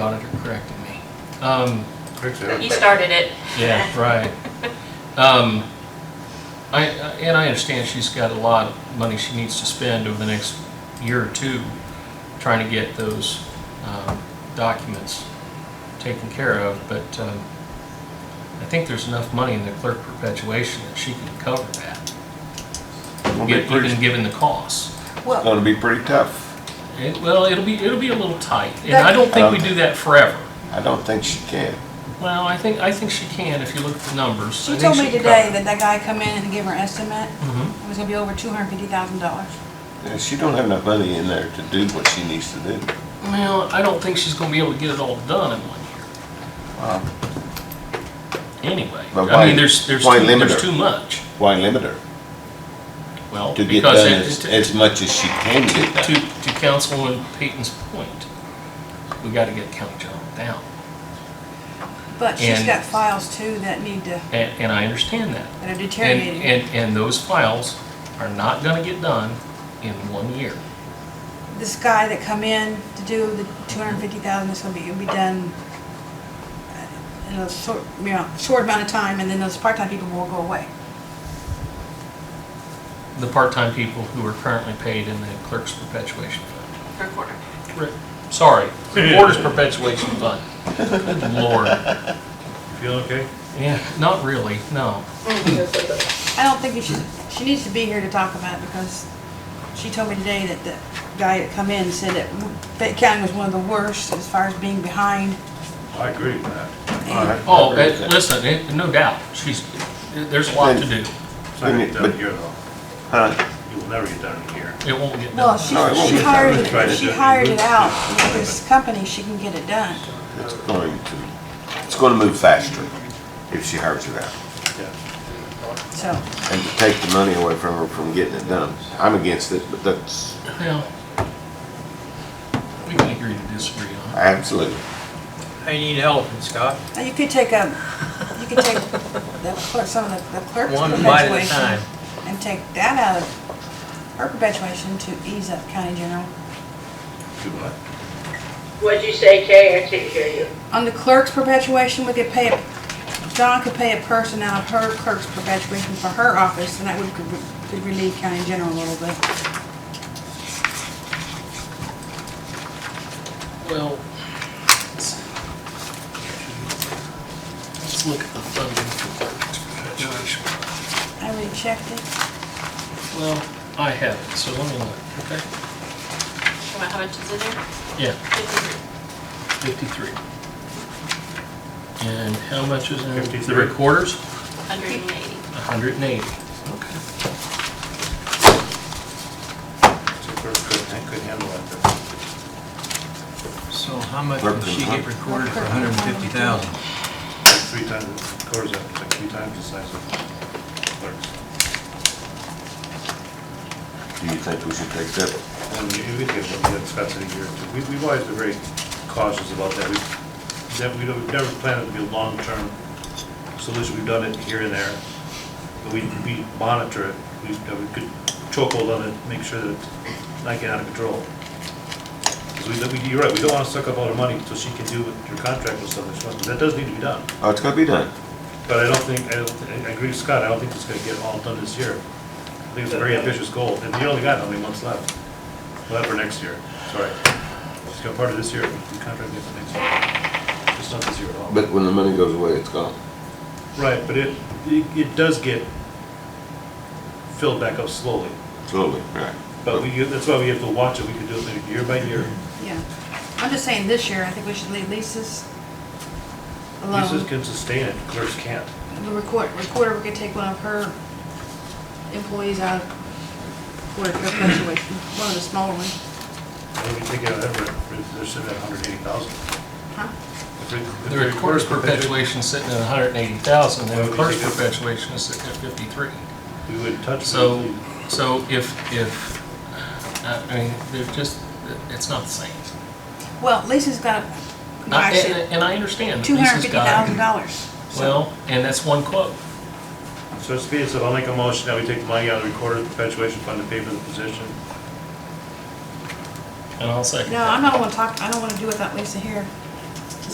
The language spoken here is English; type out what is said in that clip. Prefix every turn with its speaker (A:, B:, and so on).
A: corrected me. Um,
B: He
C: Exactly.
B: started it.
A: yeah, right. Um, I, I- and I understand she's got a lot of money she needs to spend over the next year or two trying to get those, um, documents taken care of, but, um, I think there's enough money in the clerk perpetuation that she can cover that,
C: It'll be
A: gi- even
C: pretty-
A: given the costs. Uh,
D: Well,
C: Gonna be pretty tough.
A: It, well, it'll be, it'll be a little tight, and I don't think we do that forever.
C: I don't think she can.
A: Well, I think, I think she can if you look at the numbers. I
D: she
A: think
D: told me
A: can
D: today
A: cover it.
D: that that guy come in and give her estimate,
A: Mhm.
D: it was gonna be over two hundred fifty thousand dollars.
C: Yeah, Uh, She don't have enough money in there to do what she needs to do.
A: Well, I don't think she's gonna be able to get it all done in one
C: Wow.
A: year, anyway.
C: But
A: I
C: why-
A: mean, there's, there's,
C: why
A: too-
C: limit
A: there's
C: her?
A: too much.
C: Why limit her?
A: Well,
C: To get
A: because
C: done
A: it-
C: as,
A: to-
C: as much as she can get
A: To,
C: done.
A: to Councilwoman Peyton's point, we gotta get county general down,
D: But she's
A: And-
D: got files too that need to,
A: and, and I understand that.
D: that are
A: And,
D: deteriorating.
A: and, and those files are not gonna get done in one year.
D: This guy that come in to do the two hundred fifty thousand, it's gonna be, it'll be done uh, in a short, you know, short amount of time, and then those part-time people will go away.
A: The part-time people who are currently paid in the clerk's perpetuation fund.
B: Recorder.
A: Re- Sorry, Recorder's Perpetuation Fund. Good lord.
E: Feeling okay?
A: Yeah, not really, no.
D: I don't think you should, she needs to be here to talk about it because she told me today that the guy that come in said that Fayette County was one of the worst as far as being behind.
E: I agree with that.
D: And
A: Oh, eh, listen, eh, no doubt, she's, eh, there's a lot to do.
E: It's not gonna get done here though.
C: Huh?
E: You will never get done here.
A: It won't get
D: Well,
A: done.
D: she,
C: No, it won't
D: she
C: be.
D: hired,
E: Try
D: it-
E: to
D: she
E: do it.
D: hired it out with this company, she can get it done.
C: It's going to, it's gonna move faster if she hires it out.
E: Yeah.
D: So,
C: And to take the money away from her from getting it done. I'm against it, but that's
A: Well, we can agree to disagree on it.
C: absolutely.
F: I need help, Scott,
D: now you could take a, you could take the clerk, some of the the clerk's
F: one bite at a
D: perpetuation
F: time.
D: and take that out of her perpetuation to ease up county general.
E: Do what?
G: What'd you say, Kay? I couldn't hear you.
D: On the clerk's perpetuation, we could pay, a John could pay a person out of her clerk's perpetuation for her office, and that would could relieve county general a little bit.
A: Well, let's let's look at the funding for clerk's perpetuation.
D: I already checked it.
A: Well, I have it, so let me look, okay?
B: How much is in there?
A: Yeah.
B: Fifty-three.
A: 53. And how much is in? The
E: 53.
A: recorders?
B: Hundred and eighty.
A: 180. Okay.
E: So first, couldn't, couldn't handle that.
F: So how much will she get recorded for hundred and fifty thousand?
E: but Three times, of course, that's like three times the size of clerks.
C: Do you think we should take that?
E: And you, we get what the Scott's in here too. We, we've always been very cautious about that. We've, that we don't, we've never planned it to be a long-term solution. We've done it here and there. But we, we monitor it. We, that we could chokehold on it, make sure that it's not getting out of control. 'Cause we, we- you're right, we don't wanna suck up all the money so she can do what her contract was so much, that does need to be done.
C: Oh, it's gonna be done.
E: But I don't think, I don't, thi- I agree with Scott, I don't think it's gonna get all done this year. I think it's a very ambitious goal, and you only got how many months left? Left for next year, sorry. It's got part of this year, the contract gets next year. It's not this year at all.
C: But when the money goes away, it's gone.
E: Right, but it, it, it does get filled back up slowly.
C: Slowly, right.
E: But we, that's why we have to watch it, we can do it maybe year by year.
D: Yeah. I'm just saying this year, I think we should leave leases
E: Leases
D: alone.
E: can sustain it, clerks can't.
D: The record, recorder, we could take one of her employees out of recorder perpetuation, one of the smaller ones.
E: Maybe take out Everett, they're sitting at hundred eighty thousand.
D: Huh?
A: The recorder's perpetuation sitting at 180,000, and the clerk's perpetuation is sitting at 53.
E: We wouldn't touch. it.
A: So, so if, if, uh, I mean, there's just, it's not the same.
D: Well, Lisa's got,
A: I-
D: I said,
A: And and I understand. that
D: two hundred
A: Lisa's
D: fifty
A: uh, got-
D: thousand dollars.
A: Well, and that's one quote.
E: So it's being said, I'll make a motion that we take the money out of the recorder perpetuation fund to pay for the position.
A: And I'll second
D: No, I'm
A: that.
D: not wanna talk, I don't wanna do without Lisa here.